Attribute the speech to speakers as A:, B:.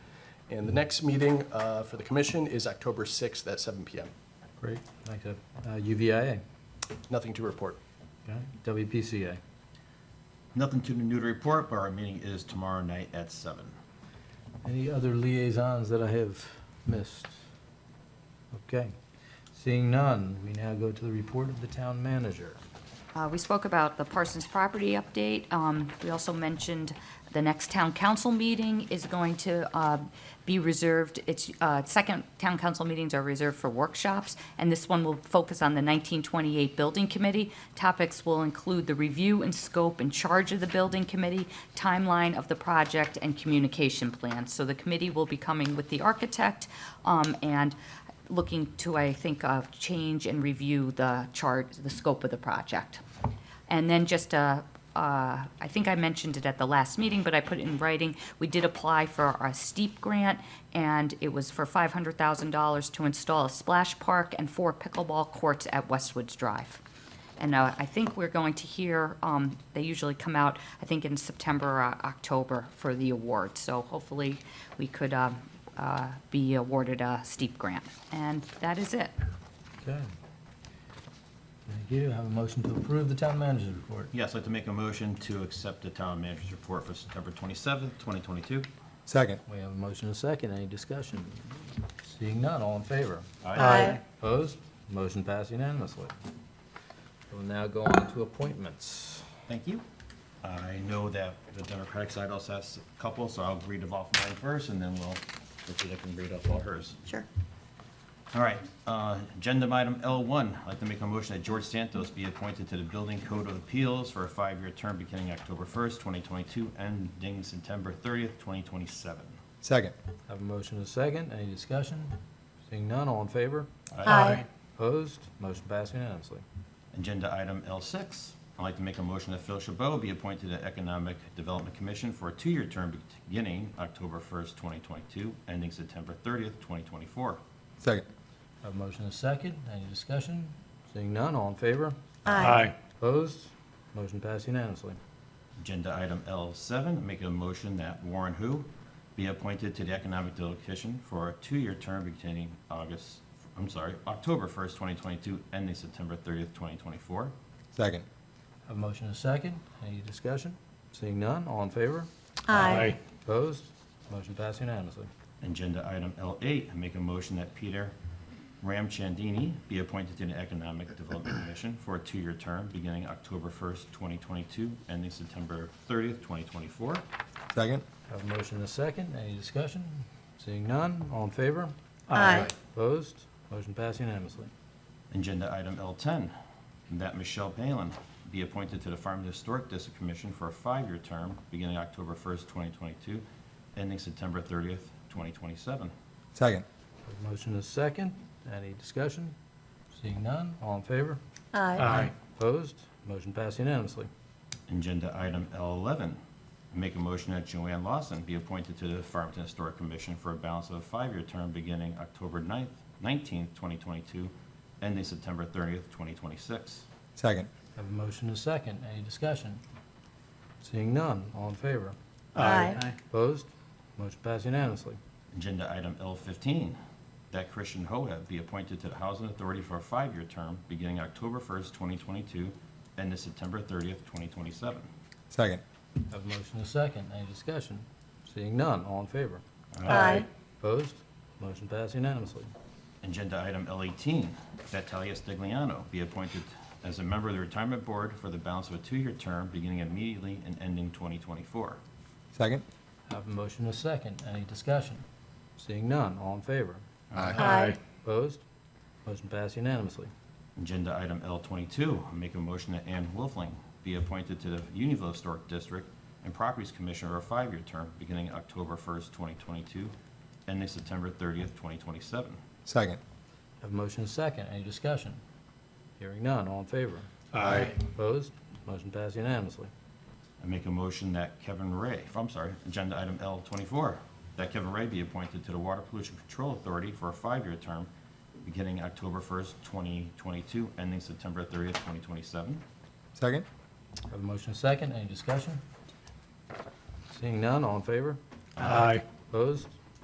A: And the next meeting uh, for the commission is October 6th at 7 PM.
B: Great, like that. Uh, UVIA,
A: Nothing to report.
B: okay, WPCA.
C: Nothing too new to report, but our meeting is tomorrow night at seven.
B: Any other liaisons that I have missed? Okay, seeing none, we now go to the report of the town manager.
D: Uh, We spoke about the Parsons property update. Um, We also mentioned the next town council meeting is going to uh, be reserved, its uh, second town council meetings are reserved for workshops, and this one will focus on the 1928 Building Committee. Topics will include the review and scope and charge of the building committee, timeline of the project, and communication plans. So the committee will be coming with the architect, um, and looking to, I think, uh, change and review the chart, the scope of the project. And then just, uh, uh, I think I mentioned it at the last meeting, but I put it in writing, we did apply for a steep grant, and it was for $500,000 to install a splash park and four pickleball courts at Westwoods Drive. And uh, I think we're going to hear, um, they usually come out, I think in September or uh, October for the award. So hopefully, we could um, uh, be awarded a steep grant. And that is it.
B: Okay. Thank you, have a motion to approve the town manager's report.
C: Yes, I'd like to make a motion to accept the town manager's report for September twenty-seventh, twenty twenty-two.
E: Second.
B: We have a motion and a second, any discussion? Seeing none, all in favor?
F: Aye.
B: Opposed? Motion passed unanimously. We'll now go on to appointments.
C: Thank you. I know that the Democratic side also has a couple, so I'll read off mine first, and then we'll, hopefully I can read off all hers.
F: Sure.
C: All right, uh, agenda item L1, I'd like to make a motion that George Santos be appointed to the Building Code of Appeals for a five-year term beginning October 1st, 2022, ending September 30th, 2027.
E: Second.
B: Have a motion and a second, any discussion? Seeing none, all in favor?
F: Aye.
B: Opposed? Motion passed unanimously.
C: Agenda item L6, I'd like to make a motion that Phil Chabot be appointed to Economic Development Commission for a two-year term beginning October 1st, 2022, ending September 30th, 2024.
E: Second.
B: Have a motion and a second, any discussion? Seeing none, all in favor?
F: Aye.
B: Opposed? Motion passed unanimously.
C: Agenda item L7, make a motion that Warren Hu be appointed to the Economic Development Commission for a two-year term beginning August, I'm sorry, October 1st, 2022, ending September 30th, 2024.
E: Second.
B: Have a motion and a second, any discussion? Seeing none, all in favor?
F: Aye.
B: Opposed? Motion passed unanimously.
C: Agenda item L8, make a motion that Peter Ramchandini be appointed to the Economic Development Commission for a two-year term beginning October 1st, 2022, ending September 30th, 2024.
E: Second.
B: Have a motion and a second, any discussion? Seeing none, all in favor?
F: Aye.
B: Opposed? Motion passed unanimously.
C: Agenda item L10, that Michelle Palin be appointed to the Farm Historic District Commission for a five-year term beginning October 1st, 2022, ending September 30th, 2027.
E: Second.
B: Have a Motion is second. Any discussion? Seeing none, all in favor?
F: Aye.
B: Opposed? Motion passed unanimously.
C: Agenda item L11, make a motion that Joanne Lawson be appointed to the Farmington Historic Commission for a balance of a five-year term beginning October 9th, 19th, 2022, ending September 30th, 2026.
E: Second.
B: Have a motion is second. Any discussion? Seeing none, all in favor?
F: Aye.
B: Opposed? Motion passed unanimously.
C: Agenda item L15, that Christian Hoheb be appointed to the Housing Authority for a five-year term beginning October 1st, 2022, ending September 30th, 2027.
E: Second.
B: Have a motion is second. Any discussion? Seeing none, all in favor?
F: Aye.
B: Opposed? Motion passed unanimously.
C: Agenda item L18, that Talia Stigliano be appointed as a member of the Retirement Board for the balance of a two-year term beginning immediately and ending 2024.
E: Second.
B: Have a motion is second. Any discussion? Seeing none, all in favor?
F: Aye.
B: Opposed? Motion passed unanimously.
C: Agenda item L22, I make a motion that Ann Wolfling be appointed to the Unionville Historic District and Properties Commission for a five-year term beginning October 1st, 2022, ending September 30th, 2027.
E: Second.
B: Have a motion is second. Any discussion? Hearing none, all in favor?
F: Aye.
B: Opposed? Motion passed unanimously.
C: I make a motion that Kevin Ray, I'm sorry, agenda item L24, that Kevin Ray be appointed to the Water Pollution Control Authority for a five-year term beginning October 1st, 2022, ending September 30th, 2027.
E: Second.
B: Have a motion and a second, any discussion? Seeing none, all in favor?
F: Aye.
B: Opposed?